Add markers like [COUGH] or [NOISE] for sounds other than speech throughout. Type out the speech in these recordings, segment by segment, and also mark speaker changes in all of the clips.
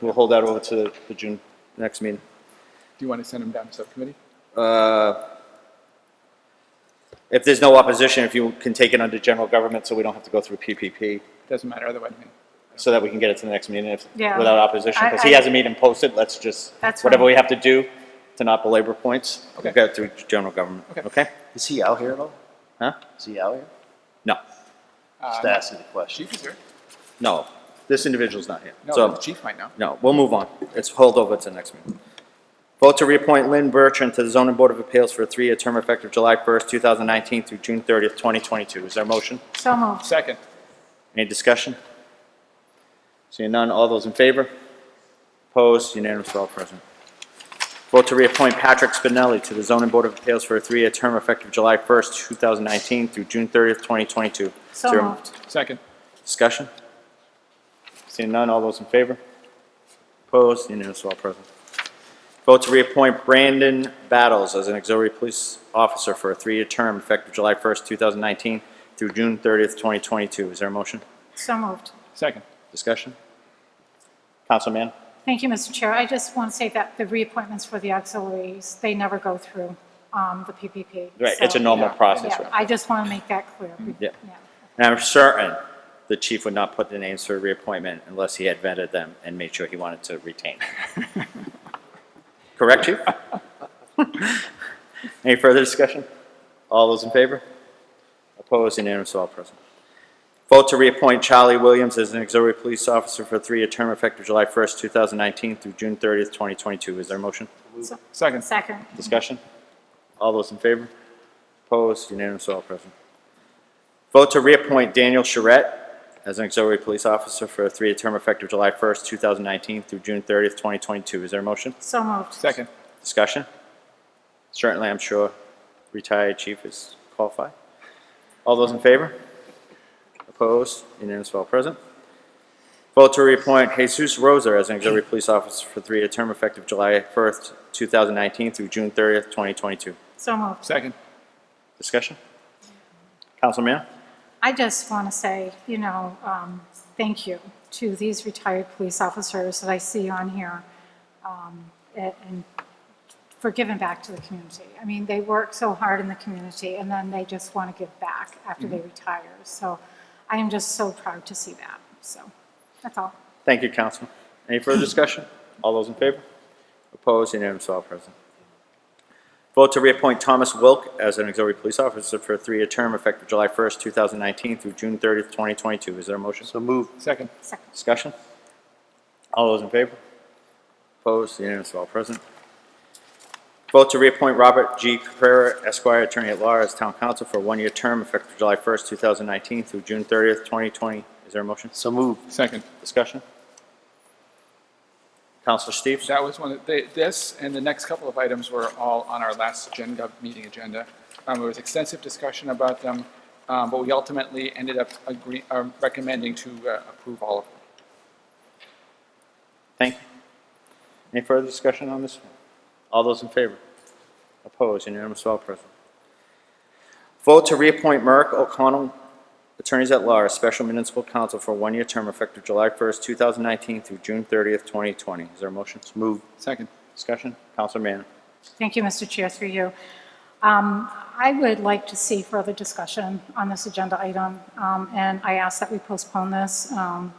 Speaker 1: we'll hold that over to the June next meeting.
Speaker 2: Do you want to send them down to subcommittee?
Speaker 1: If there's no opposition, if you can take it under general government, so we don't have to go through PPP,
Speaker 2: Doesn't matter otherwise. I mean,
Speaker 1: so that we can get it to the next meeting if,
Speaker 3: Yeah.
Speaker 1: without opposition, because he
Speaker 3: I- I-
Speaker 1: has a meeting posted, let's just,
Speaker 3: That's
Speaker 1: whatever
Speaker 3: fine.
Speaker 1: we have to do to not belabor points, we'll
Speaker 2: Okay.
Speaker 1: get it through general government,
Speaker 2: Okay.
Speaker 1: okay?
Speaker 4: Is he out here at all?
Speaker 1: Huh?
Speaker 4: Is he out here?
Speaker 1: No,
Speaker 4: Just
Speaker 2: um,
Speaker 4: asking the question.
Speaker 2: Chief is here.
Speaker 1: no, this individual's not here,
Speaker 2: No, the
Speaker 1: so,
Speaker 2: chief might know.
Speaker 1: no, we'll move on, it's hold over to the next meeting. Vote to reappoint Lynn Bertrand to the zoning board of appeals for a three-year term effective July 1st, 2019 through June 30th, 2022, is there a motion?
Speaker 3: So moved.
Speaker 2: Second,
Speaker 1: Any discussion? Seeing none, all those in favor? Opposed, unanimous, all present. Vote to reappoint Patrick Spinelli to the zoning board of appeals for a three-year term effective July 1st, 2019 through June 30th, 2022.
Speaker 3: So
Speaker 1: Zero.
Speaker 3: moved.
Speaker 2: second,
Speaker 1: Discussion? Seeing none, all those in favor? Opposed, unanimous, all present. Vote to reappoint Brandon Battles as an auxiliary police officer for a three-year term effective July 1st, 2019 through June 30th, 2022. Is there a motion?
Speaker 3: So moved.
Speaker 2: second.
Speaker 1: Discussion? Councilman?
Speaker 3: Thank you, Mr. Chair. I just want to say that the reappointments for the auxiliaries, they never go through um, the PPP.
Speaker 1: Right, it's a
Speaker 3: So-
Speaker 1: normal
Speaker 2: yeah,
Speaker 1: process,
Speaker 3: Yeah,
Speaker 1: right?
Speaker 3: I just want to make that clear.
Speaker 1: Yeah. And I'm certain the chief would not put the names for reappointment unless he had vetted them and made sure he wanted to retain. Correct,
Speaker 3: [LAUGHS]
Speaker 1: chief? Any further discussion? All those in favor? Opposed, unanimous, all present. Vote to reappoint Charlie Williams as an auxiliary police officer for a three-year term effective July 1st, 2019 through June 30th, 2022. Is there a motion?
Speaker 3: So-
Speaker 2: Second,
Speaker 3: Second.
Speaker 1: Discussion? All those in favor? Opposed? Unanimous, all present. Vote to reappoint Daniel Charette as an auxiliary police officer for a three-year term effective July 1st, 2019 through June 30th, 2022. Is there a motion?
Speaker 3: So moved.
Speaker 2: second,
Speaker 1: Discussion? Certainly, I'm sure retired chief is qualified. All those in favor? Opposed? Unanimous, all present. Vote to reappoint Jesus Rosa as an auxiliary police officer for three-year term effective July 1st, 2019 through June 30th, 2022.
Speaker 3: So moved.
Speaker 2: second.
Speaker 1: Discussion? Councilman?
Speaker 3: I just want to say, you know, um, thank you to these retired police officers that I see on here um, a- and for giving back to the community. I mean, they work so hard in the community and then they just want to give back after they retire. So I am just so proud to see that. So that's all.
Speaker 1: Thank you, Councilman. Any further discussion? All those in favor? Opposed, unanimous, all present. Vote to reappoint Thomas Wilk as an auxiliary police officer for a three-year term effective July 1st, 2019 through June 30th, 2022. Is there a motion?
Speaker 4: So move.
Speaker 2: Second,
Speaker 3: Second.
Speaker 1: Discussion? All those in favor? Opposed, unanimous, all present. Vote to reappoint Robert G. Caprera, Esquire, Attorney at Law, as Town Council for a one-year term effective July 1st, 2019 through June 30th, 2020. Is there a motion?
Speaker 4: So move.
Speaker 2: second.
Speaker 1: Discussion? Counselor Steves?
Speaker 2: That was one of, they- this and the next couple of items were all on our last Gen Gov meeting agenda. Um, There was extensive discussion about them, um, but we ultimately ended up agree- uh, recommending to uh, approve all of them.
Speaker 1: Thank you. Any further discussion on this one? All those in favor? Opposed? Unanimous, all present. Vote to reappoint Merrick O'Connell, Attorneys at Law, as Special Municipal Counsel for a one-year term effective July 1st, 2019 through June 30th, 2020. Is there a motion? Move.
Speaker 2: Second,
Speaker 1: Discussion? Counselor Mann.
Speaker 3: Thank you, Mr. Chair, through you. Um, I would like to see further discussion on this agenda item, um, and I ask that we postpone this um,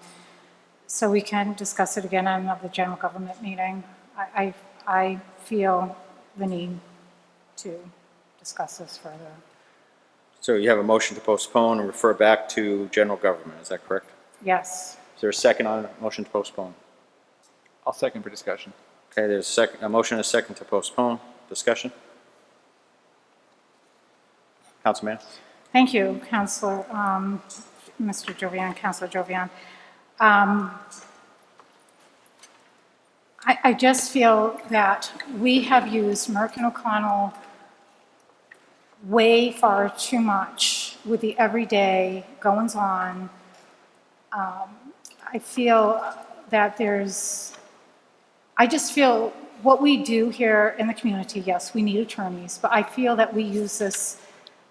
Speaker 3: so we can discuss it again at another general government meeting. I, I I feel the need to discuss this further.
Speaker 1: So you have a motion to postpone and refer back to general government, is that correct?
Speaker 3: Yes,
Speaker 1: Is there a second on the motion to postpone?
Speaker 2: I'll second for discussion.
Speaker 1: Okay, there's a second, a motion and a second to postpone. Discussion? Councilman?
Speaker 3: thank you, Counselor, um, Mr. Jovian, Counselor Jovian. Um, I, I just feel that we have used Merck and O'Connell way far too much with the everyday goings-on. Um, I feel that there's, I just feel what we do here in the community, yes, we need attorneys, but I feel that we use this,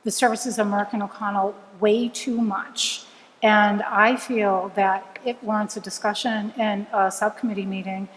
Speaker 3: the services of Merck and O'Connell way too much. And I feel that it warrants a discussion and a subcommittee meeting